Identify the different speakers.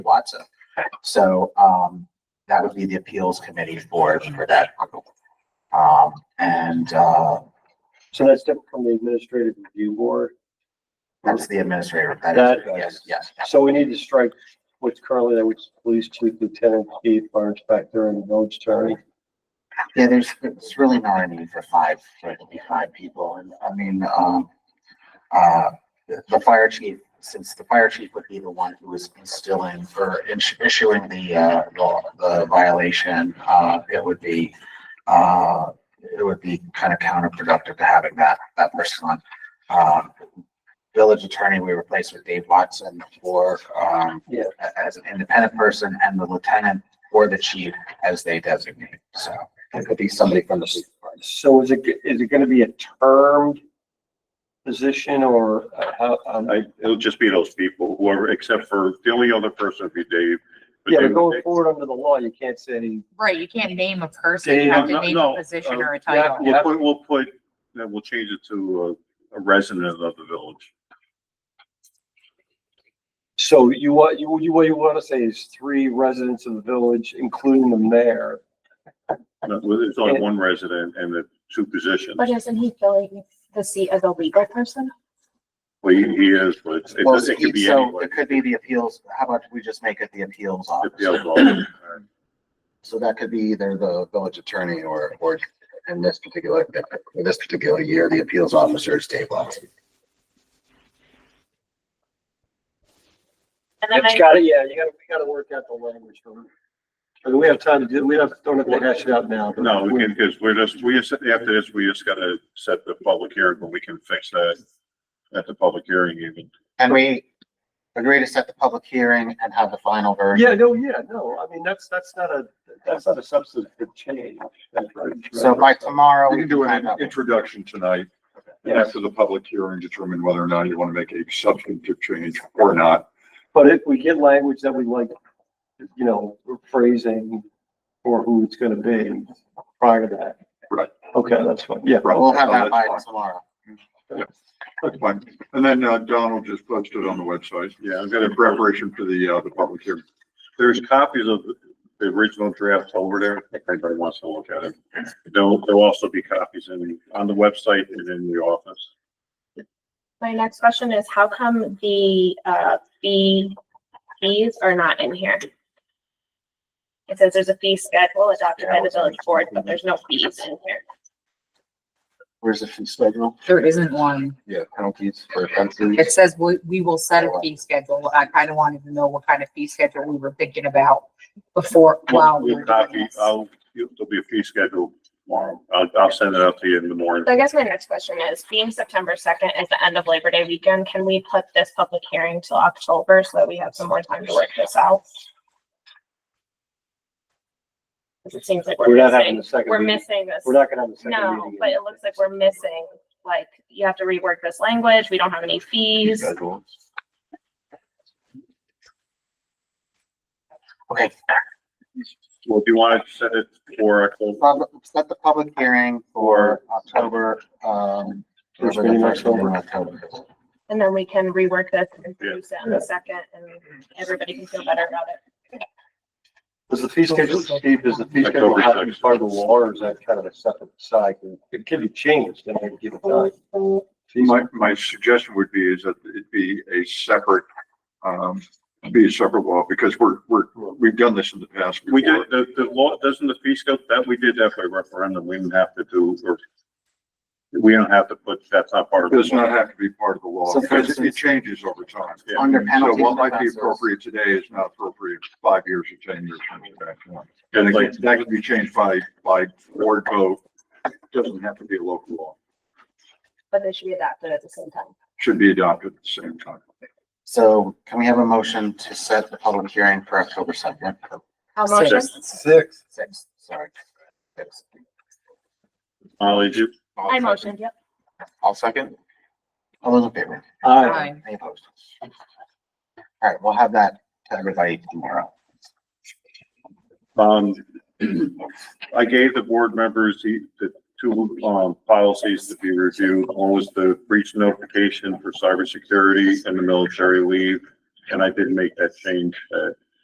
Speaker 1: Watson. So, um, that would be the appeals committee for, for that group. Um, and, uh,
Speaker 2: So that's different from the administrative review board.
Speaker 1: that's the administrator.
Speaker 2: That
Speaker 1: That is,
Speaker 2: is-
Speaker 1: yes, yes. yes.
Speaker 2: So we need to strike what's currently there, which is police chief, lieutenant chief, fire inspector and village attorney.
Speaker 1: Yeah, there's, there's really not a need for five, for it to be five people. And I mean, um, uh, the the fire chief, since the fire chief would be the one who is instilling or ins- issuing the, uh, the- the violation, uh, it would be, uh, it would be kind of counterproductive to having that, that person on. Um, Village attorney, we replaced with Dave Watson for, um,
Speaker 2: Yeah.
Speaker 1: a- as an independent person and the lieutenant or the chief as they designate. So it could be somebody from the police department.
Speaker 2: So is it, is it gonna be a termed position or uh, how, um,
Speaker 3: I, it'll just be those people, whoever, except for, the only other person would be Dave. but
Speaker 2: yeah, but
Speaker 3: Dave-
Speaker 2: going forward under the law, you can't say any,
Speaker 4: Right, you can't name a person,
Speaker 2: Yeah,
Speaker 4: you have to
Speaker 3: no,
Speaker 4: name
Speaker 3: no,
Speaker 4: a
Speaker 3: uh,
Speaker 4: position or a
Speaker 2: yeah,
Speaker 4: title.
Speaker 3: We'll put, we'll put, then we'll change it to uh, a resident of the village.
Speaker 2: so you want, you, you, what you wanna say is three residents of the village, including the mayor.
Speaker 3: But There's only one resident and the two positions.
Speaker 5: But isn't he filling the seat as a legal person?
Speaker 3: Well, he he is, but it's- it
Speaker 1: Well,
Speaker 3: doesn't, it could be
Speaker 1: so
Speaker 3: anyone.
Speaker 1: it could be the appeals, how about we just make it the appeals
Speaker 3: If the
Speaker 1: officer?
Speaker 3: other one- all right.
Speaker 6: So that could be either the village attorney or, or in this particular, in this particular year, the appeals officer is Dave Watson.
Speaker 4: And then
Speaker 2: It's
Speaker 4: I,
Speaker 2: gotta, yeah, you gotta, we gotta work out the language for it. I mean, we have time to do, we don't, don't have to hash it out now. but
Speaker 3: No, we can, because we're just, we just, after this, we just gotta set the public hearing, but we can fix that at the public hearing even.
Speaker 1: And we agree to set the public hearing and have the final version.
Speaker 2: Yeah, no, yeah, no, I mean, that's, that's not a, that's not a substantive change. That's right.
Speaker 1: So by tomorrow.
Speaker 7: We
Speaker 1: we
Speaker 7: can do
Speaker 1: find
Speaker 7: an
Speaker 1: out.
Speaker 7: introduction tonight, and
Speaker 2: Yes,
Speaker 7: after the public hearing, determine whether or not you want to make a substantive change or not.
Speaker 2: but if we get language that we like, you know, phrasing or who it's gonna be prior to that.
Speaker 7: Right.
Speaker 2: Okay, that's fine, yeah.
Speaker 1: We'll have that by
Speaker 7: That's fine.
Speaker 1: tomorrow.
Speaker 7: That's fine. And then uh, Donald just posted on the website,
Speaker 3: Yeah, I'm gonna
Speaker 7: in preparation for the, uh, the public hearing.
Speaker 3: There's copies of the original draft over there, if anybody wants to look at it. There'll, there'll also be copies in, on the website and in the office.
Speaker 5: My next question is how come the, uh, fee, fees are not in here? It says there's a fee schedule adopted by the village board, but there's no fees in here.
Speaker 6: Where's the fee schedule?
Speaker 4: there isn't one.
Speaker 6: Yeah, penalties for offenses.
Speaker 4: It says we, we will set a fee schedule. I kind of wanted to know what kind of fee schedule we were thinking about before, while we
Speaker 3: We'll
Speaker 4: were doing
Speaker 3: copy,
Speaker 4: this.
Speaker 3: I'll, there'll be a fee schedule tomorrow. I'll, I'll send it out to you in the morning.
Speaker 5: So I guess my next question is, being September second is the end of Labor Day weekend, can we put this public hearing till October so that we have some more time to work this out? 'Cause It seems like
Speaker 2: We're
Speaker 5: we're
Speaker 2: not having
Speaker 5: missing,
Speaker 2: the second
Speaker 5: we're
Speaker 2: meeting.
Speaker 5: missing this.
Speaker 2: We're not gonna have the second meeting.
Speaker 5: No, but it looks like we're missing, like, you have to rework this language, we don't have any fees.
Speaker 1: Okay,
Speaker 3: Well, if you want to set it for October,
Speaker 1: pub- set the public hearing for October, um.
Speaker 2: First
Speaker 1: whatever the
Speaker 2: meeting in
Speaker 1: first meeting in October is.
Speaker 5: And then we can rework this and produce it in a second, and everybody can feel better about it.
Speaker 2: Does the fee schedule, Steve, does the fee schedule
Speaker 3: October
Speaker 2: have to be
Speaker 3: sixth.
Speaker 2: part of the law or is that kind of a separate side? It can be changed and then give it time. Fees-
Speaker 7: My, my suggestion would be is that it be a separate, um, be a separate law, because we're, we're, we've done this in the past.
Speaker 3: we
Speaker 7: before.
Speaker 3: did, the, the law, doesn't the fee schedule, that we did that by referendum, we didn't have to do, or we don't have to put, that's not part of.
Speaker 7: It
Speaker 3: the
Speaker 7: Does
Speaker 3: law.
Speaker 7: not have to be part of the law,
Speaker 1: So for
Speaker 7: because it- it
Speaker 1: instance-
Speaker 7: changes over time.
Speaker 3: Yeah.
Speaker 1: Under
Speaker 7: So
Speaker 1: penalty.
Speaker 7: what might be
Speaker 1: offenses.
Speaker 7: appropriate today is not appropriate five years or ten years from today. And
Speaker 3: It's like-
Speaker 7: it- that can be changed by, by board vote. Doesn't have to be a local law.
Speaker 5: But they should be adapted at the same time.
Speaker 7: Should be adopted at the same time.
Speaker 1: So can we have a motion to set the public hearing for October second?
Speaker 5: How
Speaker 4: Six.
Speaker 5: motion?
Speaker 1: Six. Six, sorry. Six.
Speaker 3: Molly, did you-
Speaker 5: I motioned, yep.
Speaker 6: I'll second.
Speaker 1: All those in favor?
Speaker 2: Aye.
Speaker 4: Fine.
Speaker 1: Any opposed? All right, we'll have that to everybody tomorrow.
Speaker 3: Um, I gave the board members the, the two, um, policies to be reviewed. One was the breach notification for cybersecurity and the military leave. And I did make that change, uh,